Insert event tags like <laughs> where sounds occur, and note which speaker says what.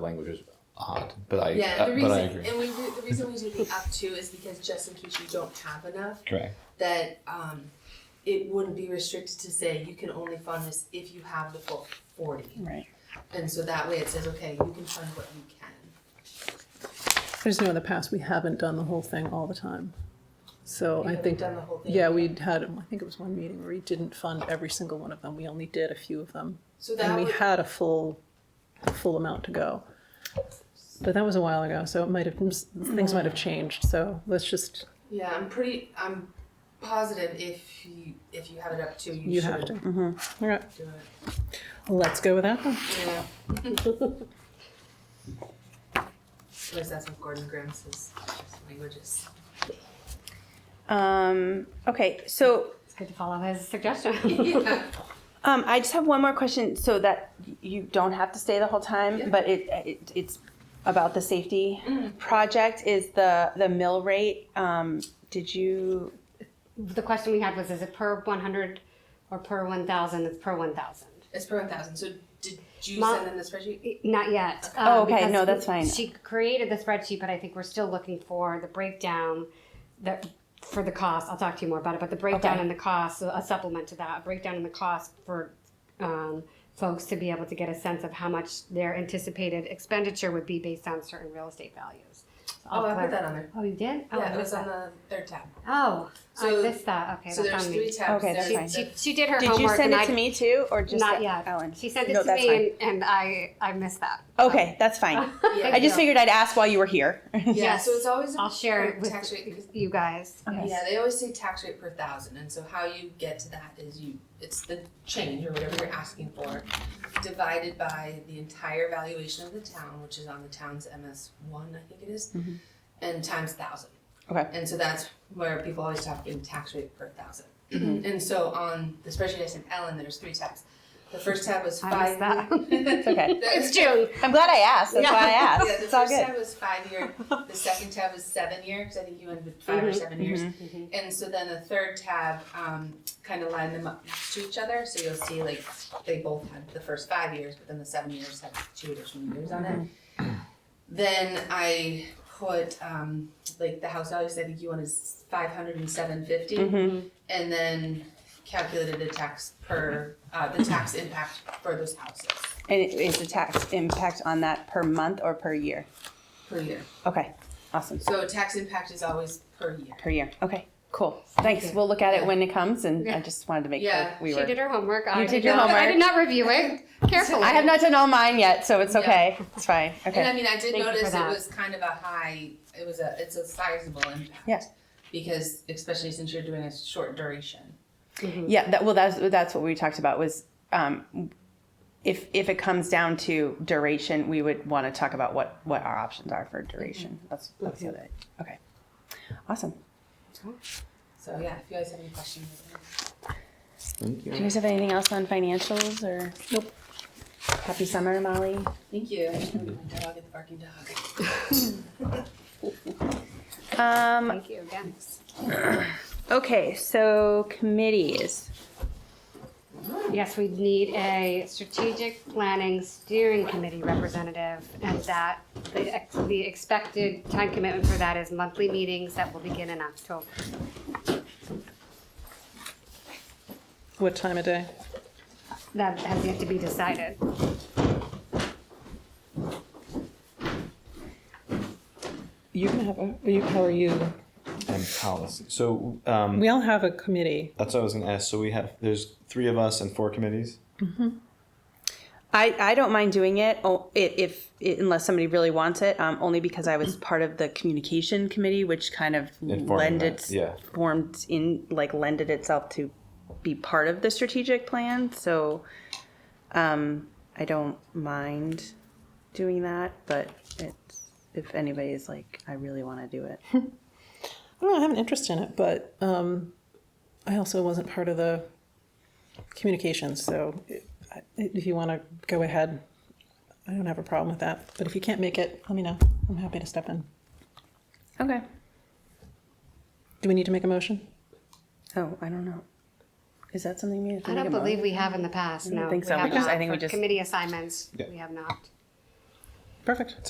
Speaker 1: language is odd, but I,
Speaker 2: Yeah,
Speaker 1: uh,
Speaker 2: the
Speaker 1: but
Speaker 2: reason,
Speaker 1: I agree.
Speaker 2: and we do, the reason we do the up to is because just in case you don't have enough,
Speaker 1: Correct.
Speaker 2: that um, it wouldn't be restricted to say you can only fund this if you have the full forty.
Speaker 3: Right.
Speaker 2: And so that way it says, okay, you can fund what you can.
Speaker 3: I just know in the past, we haven't done the whole thing all the time. So
Speaker 2: You
Speaker 3: I
Speaker 2: haven't
Speaker 3: think,
Speaker 2: done the whole thing.
Speaker 3: yeah, we'd had, I think it was one meeting where we didn't fund every single one of them. We only did a few of them.
Speaker 2: So that
Speaker 3: And we
Speaker 2: would,
Speaker 3: had a full, a full amount to go. But that was a while ago, so it might have, things might have changed, so let's just,
Speaker 2: yeah, I'm pretty, I'm positive if you, if you have it up to, you
Speaker 3: you have
Speaker 2: should
Speaker 3: to.
Speaker 2: do
Speaker 3: All right,
Speaker 2: it.
Speaker 3: <laughs> let's go with that then.
Speaker 2: Yeah. <laughs> At least that's what Gordon Graham says, languages.
Speaker 4: Um, okay, so
Speaker 5: It's good to follow his suggestion.
Speaker 4: <laughs> um, I just have one more question so that you don't have to stay the whole time, but it, it it's about the safety
Speaker 5: Mm-hmm.
Speaker 4: project is the the mill rate. Um, did you
Speaker 5: the question we had was, is it per 100 or per 1,000? It's per 1,000.
Speaker 2: It's per one thousand, so did you
Speaker 5: Ma-
Speaker 2: send in the spreadsheet?
Speaker 5: Not yet.
Speaker 4: Oh,
Speaker 5: um,
Speaker 4: okay,
Speaker 5: because
Speaker 4: no, that's fine.
Speaker 5: She created the spreadsheet, but I think we're still looking for the breakdown that for the cost. I'll talk to you more about it, but the breakdown
Speaker 4: Okay.
Speaker 5: in the cost, a supplement to that, a breakdown in the cost for um, folks to be able to get a sense of how much their anticipated expenditure would be based on certain real estate values. So I'll
Speaker 2: Oh, I put
Speaker 5: clar-
Speaker 2: that on there.
Speaker 5: Oh, you did? Oh,
Speaker 2: Yeah,
Speaker 5: I
Speaker 2: it was
Speaker 5: missed
Speaker 2: on
Speaker 5: that.
Speaker 2: the third tab.
Speaker 5: Oh,
Speaker 2: So-
Speaker 5: I missed that. Okay,
Speaker 2: So
Speaker 5: that's
Speaker 2: there's
Speaker 5: on
Speaker 2: three
Speaker 5: me.
Speaker 2: tabs.
Speaker 4: Okay, that's
Speaker 2: There's
Speaker 4: fine.
Speaker 2: the-
Speaker 5: She, she did her
Speaker 4: did you
Speaker 5: homework.
Speaker 4: send
Speaker 5: and
Speaker 4: it to
Speaker 5: I,
Speaker 4: me too, or just
Speaker 5: Not
Speaker 4: to
Speaker 5: yet.
Speaker 4: Ellen?
Speaker 5: She sent it
Speaker 4: No,
Speaker 5: to
Speaker 4: that's
Speaker 5: me,
Speaker 4: fine.
Speaker 5: and, and I I missed that.
Speaker 4: okay, that's fine.
Speaker 2: <laughs> Yeah.
Speaker 4: I just figured
Speaker 5: figured
Speaker 4: I'd ask while you were here. <laughs>
Speaker 2: Yeah,
Speaker 5: Yes.
Speaker 2: so it's always.
Speaker 5: I'll share it
Speaker 2: per
Speaker 5: with
Speaker 2: Tax rate, because,
Speaker 5: you <laughs> guys.
Speaker 4: Okay.
Speaker 2: yeah, they always say tax rate per thousand, and so how you get to that is you, it's the change or whatever you're asking for, divided by the entire valuation of the town, which is on the town's MS one, I think it is,
Speaker 5: Mm-hmm.
Speaker 2: and times thousand.
Speaker 4: Okay.
Speaker 2: And so that's where people always talk in tax rate per thousand.
Speaker 5: Mm-hmm.
Speaker 2: And so on the spreadsheet I sent Ellen, there's three tabs. The first tab was
Speaker 5: I
Speaker 2: five.
Speaker 5: missed that.
Speaker 4: It's okay.
Speaker 5: it's June.
Speaker 4: I'm glad I asked. That's
Speaker 5: <laughs> Yeah.
Speaker 4: why I asked.
Speaker 2: Yeah, the
Speaker 4: it's all
Speaker 2: first
Speaker 4: good.
Speaker 2: tab was five year. The second tab was seven year because I think you went with 5
Speaker 4: Mm-hmm,
Speaker 2: or 7 years. And so then the third tab um, kind of lined them up to each other. So you'll see like they both had the first five years, but then the seven years had two additional years on it.
Speaker 4: Mm-hmm.
Speaker 2: Then I put um, like the house values. I think you wanted five hundred and seven fifty,
Speaker 4: Mm-hmm.
Speaker 2: and then calculated the tax per uh, the tax impact for those houses
Speaker 4: And it is the tax impact on that per month or per year?
Speaker 2: per year.
Speaker 4: Okay, awesome.
Speaker 2: So tax impact is always per year.
Speaker 4: Per year. Okay, cool. Thanks. We'll look at it when it comes, and I
Speaker 5: Yeah.
Speaker 4: just wanted to make
Speaker 2: Yeah,
Speaker 4: sure we
Speaker 5: She
Speaker 4: were.
Speaker 5: did her homework. I
Speaker 4: You did your
Speaker 5: not, I
Speaker 4: homework.
Speaker 5: did not review <laughs> it carefully.
Speaker 4: I have not done all mine yet, so it's okay. It's fine.
Speaker 2: And I
Speaker 4: Okay.
Speaker 2: mean, I did
Speaker 5: Thank you for
Speaker 2: notice it
Speaker 5: that.
Speaker 2: was kind of a high, it was a, it's a sizable impact.
Speaker 4: Yeah.
Speaker 2: Because especially since you're doing a short duration.
Speaker 4: Yeah. That, well, that's that's what we talked about was um, if if it comes down to duration, we would want to talk about what what our options are for duration. That's that's the other. Okay. Awesome.
Speaker 2: So yeah, if you guys have any questions.
Speaker 1: Thank
Speaker 4: Do you guys have anything else on financials or? Nope. Happy summer, Molly.
Speaker 2: Thank you. My dog is barking dog.
Speaker 4: Um,
Speaker 5: Thank you again.
Speaker 4: Okay, so committees.
Speaker 5: Yes, we need a strategic planning steering committee representative, and that the, ex- the expected time commitment for that is monthly meetings that will begin in October.
Speaker 3: What time of day?
Speaker 5: That has yet to be decided.
Speaker 3: You can have, a- you, how are you?
Speaker 1: And policy. So um,
Speaker 3: We all have a committee.
Speaker 1: that's what I was going to ask. So we have there's three of us and four committees.
Speaker 4: I, I don't mind doing it o- i- if, i unless somebody really wants it, um, only because I was part of the communication committee, which kind of
Speaker 1: Informing
Speaker 4: lended,
Speaker 1: that, yeah.
Speaker 4: formed in, like lended itself to be part of the strategic plan. So, um, I don't mind doing that, but it's, if anybody is like, I really want to do
Speaker 5: <laughs>
Speaker 4: it.
Speaker 3: I don't know, I have an interest in it, but um, I also wasn't part of the communications, so i- I- if you want to go ahead, I don't have a problem with that. But if you can't make it, let me know. I'm happy to step in.
Speaker 4: Okay.
Speaker 3: Do we need to make a motion?
Speaker 4: Oh, I don't know. Is that something we have to
Speaker 5: I
Speaker 4: make
Speaker 5: don't
Speaker 4: a mo-
Speaker 5: believe we have in the past,
Speaker 4: don't
Speaker 5: no.
Speaker 4: think so.
Speaker 5: have
Speaker 4: We just- I
Speaker 5: not.
Speaker 4: think we
Speaker 5: For
Speaker 4: just-
Speaker 5: Committee assignments,
Speaker 1: Yeah.
Speaker 5: we have not.
Speaker 3: perfect.